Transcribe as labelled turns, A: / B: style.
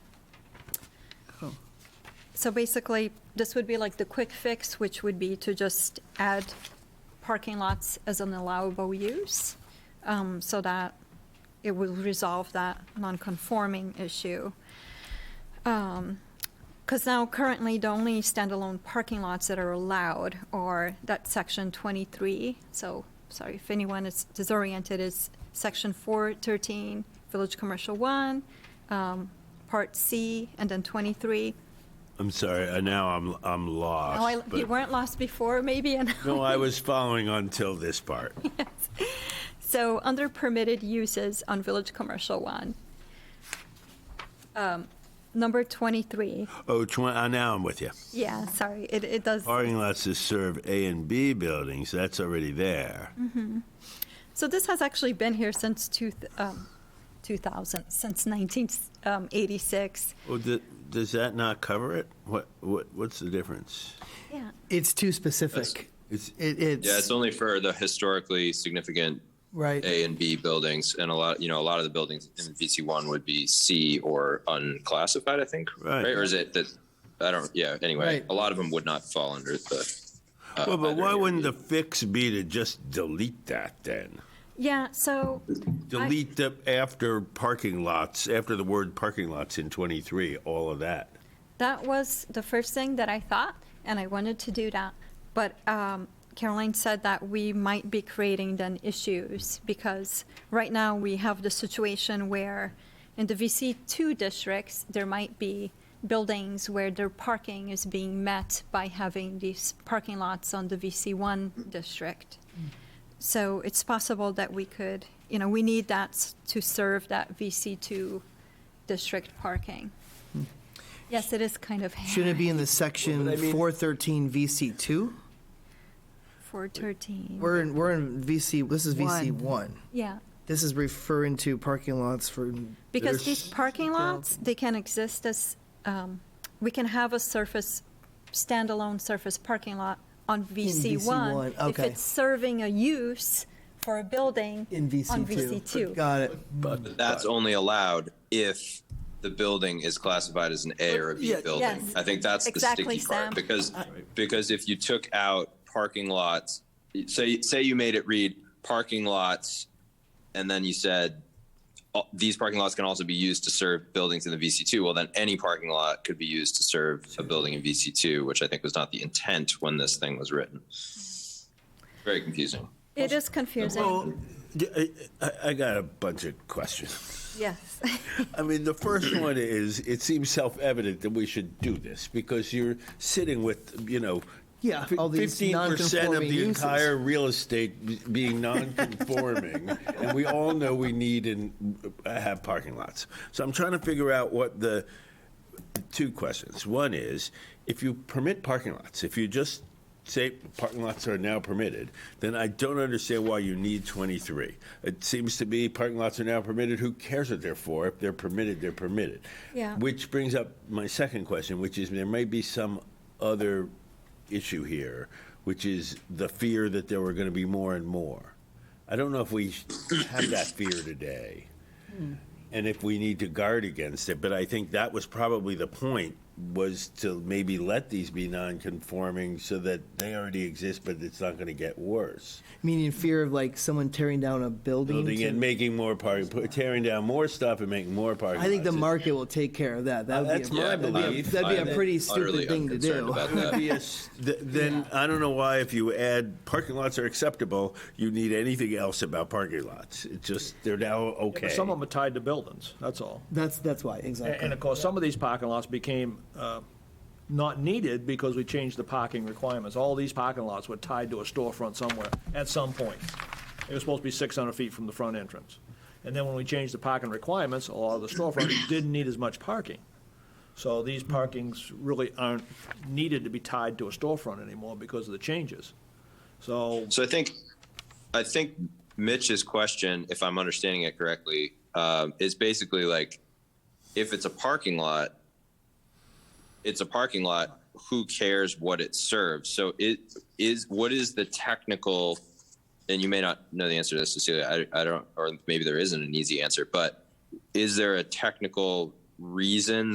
A: Cool.
B: So basically, this would be like the quick fix, which would be to just add parking lots as an allowable use, um, so that it will resolve that non-conforming issue. Because now currently, the only standalone parking lots that are allowed are that section 23, so, sorry, if anyone is disoriented, it's section 413, Village Commercial 1, um, Part C, and then 23.
C: I'm sorry. uh, Now I'm I'm lost.
B: No, Oh, I,
C: but-
B: you weren't lost before, maybe. And
C: no, I was following until this part.
B: so under permitted uses on Village Commercial One, um, number twenty-three.
C: Oh, tw- uh, now I'm with you.
B: Yeah, sorry, it, it does.
C: Parking lots to serve A and B buildings. That's already there.
B: Mm. So this has actually been here since two, th- um, two thousand, since nineteen um, eighty-six.
C: Well, d- does that not cover it? What what what's the difference?
B: Yeah.
A: It's too specific.
C: It's
A: It, it's,
D: Yeah, it's only for the historically significant
A: right.
D: A and B buildings, and a lot, you know, a lot of the buildings in VC one would be C or unclassified, I think,
C: Right.
D: Or is it that? I don't. Yeah. Anyway,
A: Right.
D: a lot of them would not fall under the. uh,
C: well, but
D: under
C: why
D: A or
C: wouldn't
D: B.
C: the fix be to just delete that then?
B: Yeah, so,
C: Delete the after parking lots, after the word parking lots in 23, all of that.
B: That was the first thing that I thought, and I wanted to do that. But um, Caroline said that we might be creating then issues because right now we have the situation where in the VC2 districts, there might be buildings where their parking is being met by having these parking lots on the VC1 district. So it's possible that we could, you know, we need that s- to serve that VC2 district parking. Yes, it is kind of.
A: Should Hmm. it be in the section
C: Well, but I mean-
A: 413 VC2?
B: Four thirteen.
A: We're in, we're in VC, this is VC1.
B: Yeah,
A: This is referring to parking lots for,
B: because
C: There's-
B: these parking lots, they can exist as, um, we can have a surface, standalone surface parking lot on VC one.
A: VC1,
B: If
A: okay.
B: it's serving a use for a building.
A: in VC2.
B: On VC2.
A: Got it.
D: But that's only allowed if the building is classified as an A or a B
C: Yeah.
D: building.
B: Yes.
D: I think that's
B: Exactly,
D: the sticky
B: Sam.
D: part because because if you took out parking lots, say say you made it read parking lots, and then you said "Oh, these parking lots can also be used to serve buildings in the VC2. Well, then any parking lot could be used to serve a building in VC2, which I think was not the intent when this thing was written. Very confusing.
B: It is confusing,
C: Well, I, I- I got a bunch of questions.
B: yes.
C: I mean, the first one is it seems self evident that we should do this because you're sitting with, you know,
A: Yeah, all these
C: 15% of the
A: non-conforming uses.
C: entire real estate b- being non-conforming, and we all know we need and uh, have parking lots. So I'm trying to figure out what the two questions. One is if you permit parking lots, if you just say parking lots are now permitted, then I don't understand why you need 23. It seems to be parking lots are now permitted. Who cares what they're for? If they're permitted, they're permitted.
B: Yeah.
C: Which brings up my second question, which is there may be some other issue here, which is the fear that there were going to be more and more. I don't know if we have that fear today and if we need to guard against it. But I think that was probably the point was to maybe let these be non-conforming so that they already exist, but it's not going to get worse.
A: Meaning fear of like someone tearing down a building.
C: Building
A: to-
C: and making more parking, pu- tearing down more stuff and making more parking.
A: I think the
C: lots.
A: market will take care of that. That would
C: That's
A: be
C: my
A: a, that'd, be a,
C: belief.
A: that'd be a
C: I'm
A: pretty
D: utterly
A: stupid thing to
D: unconcerned
A: do.
D: about
C: It would be a s- th- Then I don't know why if you add parking lots are acceptable, you need anything else about parking lots. It's just they're now okay.
E: Some of them are tied to buildings, that's all.
A: That's that's why
E: And
A: exactly.
E: and of course, some of these parking lots became uh, not needed because we changed the parking requirements. All these parking lots were tied to a storefront somewhere at some point. It was supposed to be 600 feet from the front entrance. And then when we changed the parking requirements, a lot of the storefronts didn't need as much parking. So these parkings really aren't needed to be tied to a storefront anymore because of the changes. So
D: So I think, I think Mitch's question, if I'm understanding it correctly, um, is basically like, if it's a parking lot, it's a parking lot. Who cares what it serves? So it is. What is the technical? And you may not know the answer to this, Cecilia. I, I don't, or maybe there isn't an easy answer. But is there a technical reason